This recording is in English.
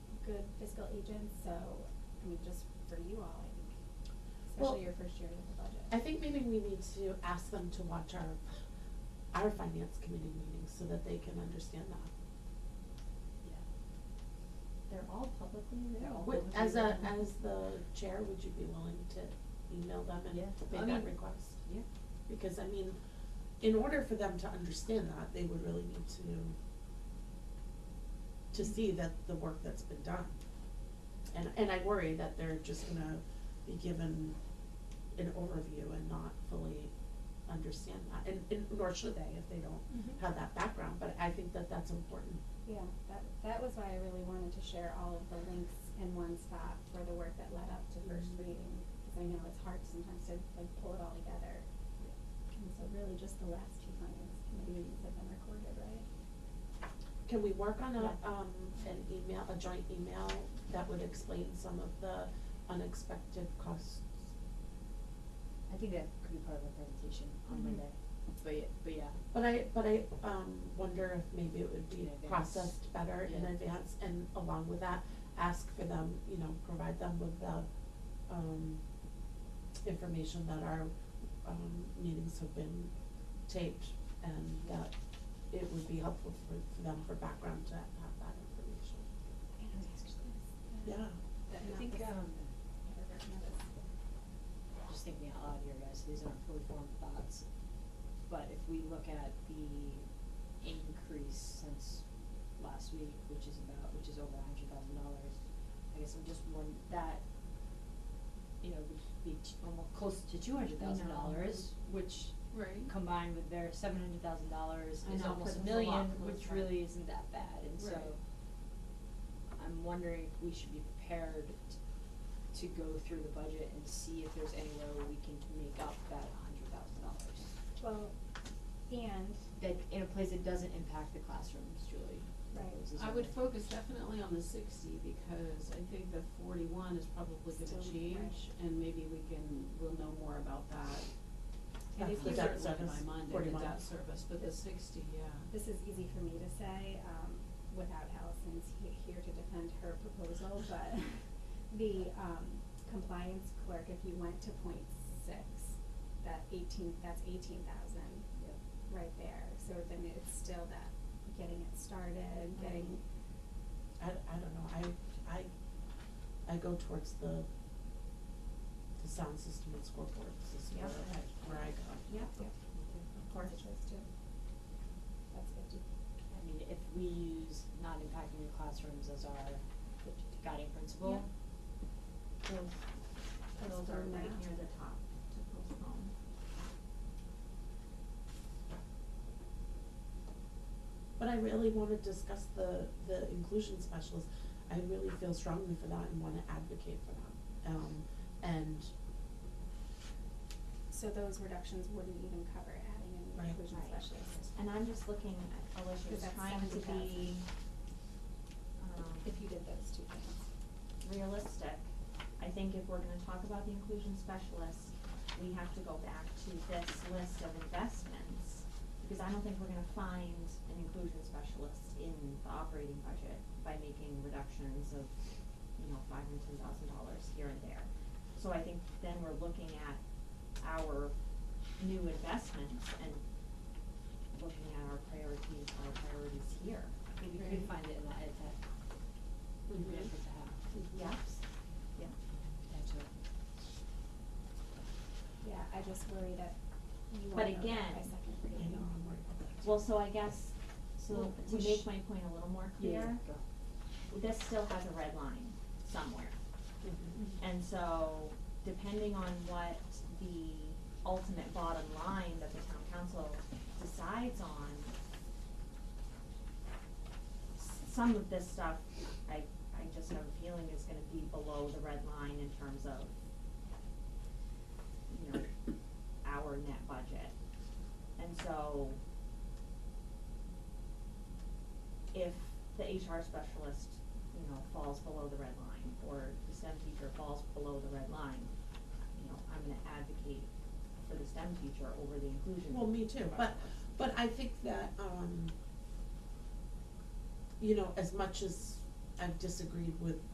good fiscal agents, so, I mean, just for you all, I think, Well, especially your first year with the budget. I think maybe we need to ask them to watch our, our finance committee meetings so that they can understand that. They're all publicly available. Would, as a, as the chair, would you be willing to email them and Yeah, I make that mean- request? Yeah. Because I mean, in order for them to understand that, they would really need to, to see that the work that's been done. And, and I worry that they're just gonna be given an overview and not fully understand that, and, and nor should they if they don't Mhm. have that background, but I think that that's important. Yeah, that, that was why I really wanted to share all of the links in one spot for the work that led up to first Mhm. reading, because I know it's hard sometimes to like pull it all together. And so really just the last two finance committee meetings have been recorded, right? Can we work on Yeah. a, um, an email, a joint email that would explain some of the unexpected costs? I think that could be part of our presentation Mhm. on Monday, but yeah, but yeah, But I, but I, um, wonder if maybe it would In be advance. processed better in Yeah. advance and along with that, ask for them, you know, provide them with the, um, information that our, um, meetings have been taped and that it would be helpful for, for them for background to have that information. And I was just gonna- Yeah. that I not think, this- um, never written notice. just thinking out loud here, guys, these aren't fully formed thoughts. But if we look at the increase since last week, which is about, which is over a hundred thousand dollars, I guess I'm just one, that, you know, would be t- almost close to two hundred thousand dollars, which Right. combined with their seven hundred thousand dollars I is know, almost a puts us a lot million, which closer. really isn't that bad, and so Right. I'm wondering if we should be prepared to go through the budget and see if there's anywhere where we can make up that hundred thousand dollars. Well, and, Like, in a place that doesn't impact the classrooms, Julie. Right. This is I would what- focus definitely on the sixty because I think the forty-one is probably gonna Still, change and maybe we can, we'll know more about that. and That's if the you debt were Certainly service, by Monday, the 41. debt service, but the sixty, yeah. This is easy for me to say, um, without Allison's he- here to defend her proposal, but the, um, compliance clerk, if you went to point six, that eighteen, that's eighteen thousand Yep. right there, so then it's still that getting it started, getting, I, I don't know, I, I, I go towards the, the sound system and scoreboard system Yeah. where I, where I go. yep, yep, of course, it goes to, that's fifty. I mean, if we use not impacting the classrooms as our guiding principle, Those are right near the top to postpone. But I really wanna discuss the, the inclusion specialist, I really feel strongly for that and wanna advocate for that. Um, and, So those reductions wouldn't even cover adding in the Right. inclusion Right. specialist, And I'm just looking at Because Alicia's that's trying to 70,000. be, um, if you did those two things. realistic. I think if we're gonna talk about the inclusion specialist, we have to go back to this list of investments. Because I don't think we're gonna find an inclusion specialist in the operating budget by making reductions of, you know, five and ten thousand dollars here and there. So I think then we're looking at our new investments and looking at our priorities, our priorities here. maybe we could find it in the ed tech. Mm-hmm. We have to have, Yes, yeah. potentially. Yeah, I just worry that you But won't know that again, by second you know, reading. I'm worried about that. Well, so I guess, so Well, to we make sh- my point a little more Yeah, clear, go. this still has a red line somewhere. Mhm. And so depending on what the ultimate bottom line that the town council decides on, s- some of this stuff, I, I just have a feeling is gonna be below the red line in terms of, you know, our net budget. And so if the HR specialist, you know, falls below the red line, or the STEM teacher falls below the red line, you know, I'm gonna advocate for the STEM teacher over the inclusion. Well, me too, but, but I think that, um, you know, as much as I've disagreed with